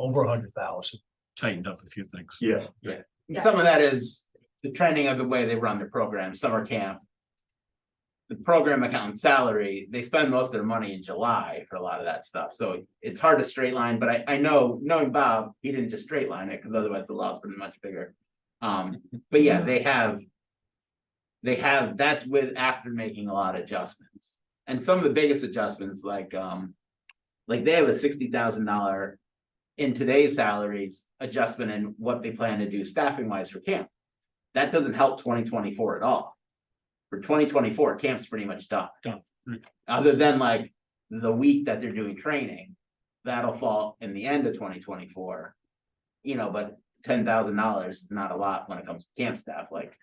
over a hundred thousand. tightened up a few things. Yeah. Yeah. Some of that is the trending of the way they run the program, summer camp. The program account salary, they spend most of their money in July for a lot of that stuff, so it's hard to straight line, but I, I know, knowing Bob, he didn't just straight line it, because otherwise the loss would be much bigger. Um, but yeah, they have. They have, that's with after making a lot of adjustments, and some of the biggest adjustments, like, um. Like they have a sixty thousand dollar in today's salaries adjustment and what they plan to do staffing wise for camp. That doesn't help twenty twenty four at all. For twenty twenty four, camp's pretty much done. Done. Mm. Other than like the week that they're doing training, that'll fall in the end of twenty twenty four. You know, but ten thousand dollars is not a lot when it comes to camp staff, like.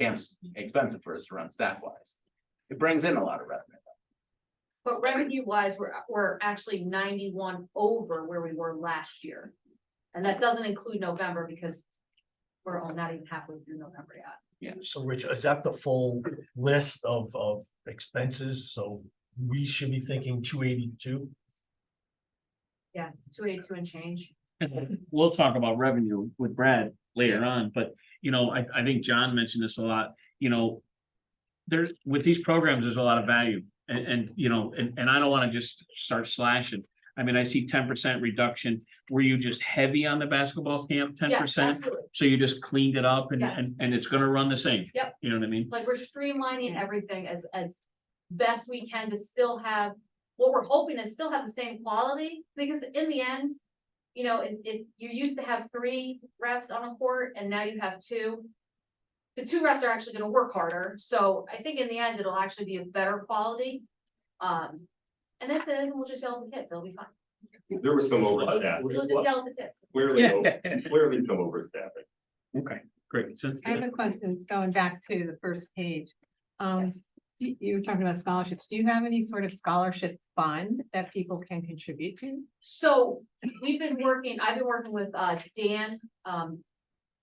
Camp's expensive for us to run staff wise. It brings in a lot of revenue. But revenue wise, we're, we're actually ninety-one over where we were last year. And that doesn't include November because we're all not even halfway through November yet. So Rich, is that the full list of, of expenses? So we should be thinking two eighty-two? Yeah, two eighty-two and change. We'll talk about revenue with Brad later on, but you know, I, I think John mentioned this a lot, you know. There's, with these programs, there's a lot of value and, and, you know, and, and I don't wanna just start slashing. I mean, I see ten percent reduction. Were you just heavy on the basketball camp, ten Yeah, percent? absolutely. So you just cleaned it up and, and, Yes. and it's gonna run the same? Yep. You know what I mean? Like we're streamlining everything as, as best we can to still have, what we're hoping is still have the same quality, because in the end. You know, if, if you used to have three refs on a court and now you have two. The two refs are actually gonna work harder, so I think in the end, it'll actually be a better quality. Um, and then, then we'll just yell at the kids, they'll be fine, There was some overstaff, we'll just yell at the kids. clearly, over- clearly some overstaffing. Okay, great. Sounds I have good. a question going back to the first page. Um, do- you were talking about scholarships. Do you have any sort of scholarship fund that people can contribute to? So we've been working, I've been working with uh Dan, um,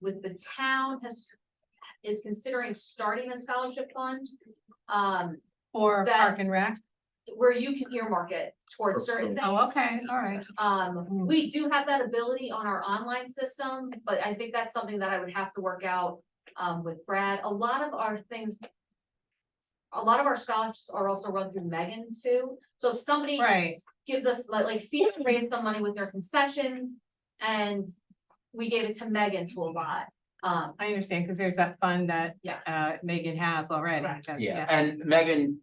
with the town has. Is considering starting a scholarship fund, um, Or That- Park and Rec? where you can earmark it towards certain things. Oh, okay, Hmm. all right. Um, we do have that ability on our online system, but I think that's something that I would have to work out um with Brad. A lot of our things. A lot of our scholarships are also run through Megan too. So if somebody Right, gives us like, like FEMA raised some money with their concessions and we gave it to Megan to a lot. Um, I understand, because there's that fund that yeah, uh Megan has already. Correct. That's- Yeah, and Megan,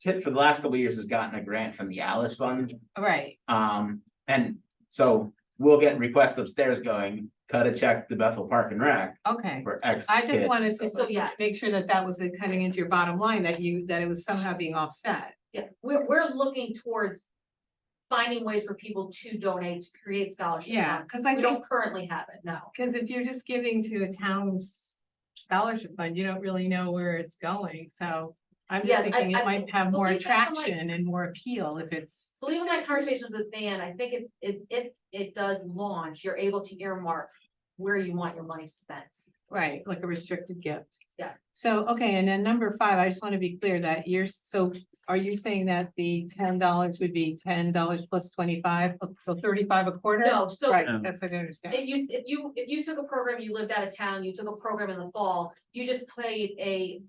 tip for the last couple of years has gotten a grant from the Alice Fund. Right, Um, and so we'll get requests upstairs going, cut a check to Bethel Park and Rec okay. for X I just kid. wanted so to yes, make sure that that was uh, cutting into your bottom line, that you, that it was somehow being offset. yeah, we're, we're looking towards finding ways for people to donate, to create scholarship. Yeah, funds. because We I think, don't currently have it, no. because if you're just giving to a town's scholarship fund, you don't really know where it's going, so. I'm Yes, just I- thinking I it might have more believe that, I'm like- attraction and more appeal if it's. So even my conversations with Dan, I think if, if, if it does launch, you're able to earmark where you want your money spent. Right, like a restricted gift. Yeah. So, okay, and then number five, I just want to be clear that you're, so are you saying that the ten dollars would be ten dollars plus twenty-five, oh, so thirty-five a quarter? No, so Right, Um, that's what I understand. If you, if you, if you took a program, you lived out of town, you took a program in the fall, you just paid a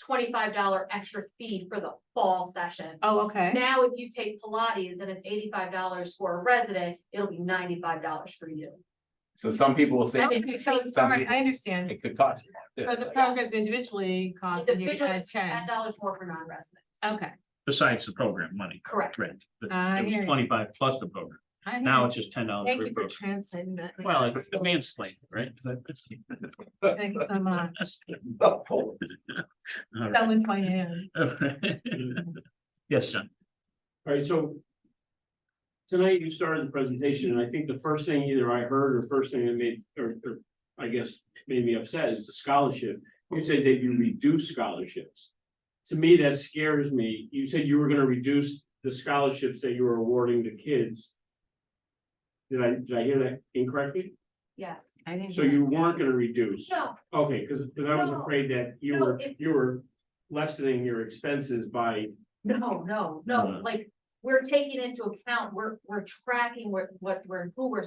twenty-five dollar extra fee for the fall session. Oh, okay, Now, if you take Pilates and it's eighty-five dollars for a resident, it'll be ninety-five dollars for you. So some people will say Okay, so, it's all right, I understand. it could cost. you. So the programs individually cost and you're Individually, gonna it's ten change. dollars more for non-residents. Okay, Besides the program money, Correct. right? But It I hear was you. twenty-five plus the program. I hear Now you. it's just ten dollars. Thank you for translating that. Well, it's the manslate, right? Thank you so much. All right. Selling my hand. Yes, John. All right, so. Tonight you started the presentation, and I think the first thing either I heard or first thing that made, or, or I guess made me upset is the scholarship. You said that you reduce scholarships. To me, that scares me. You said you were gonna reduce the scholarships that you were awarding to kids. Did I, did I hear that incorrectly? Yes. I didn't. So hear. you weren't gonna reduce? No, Okay, cause, 'cause I was No. afraid that you No, were, if- you were lessening your expenses by no, no, no, No. like, we're taking into account, we're, we're tracking what, what we're, who we're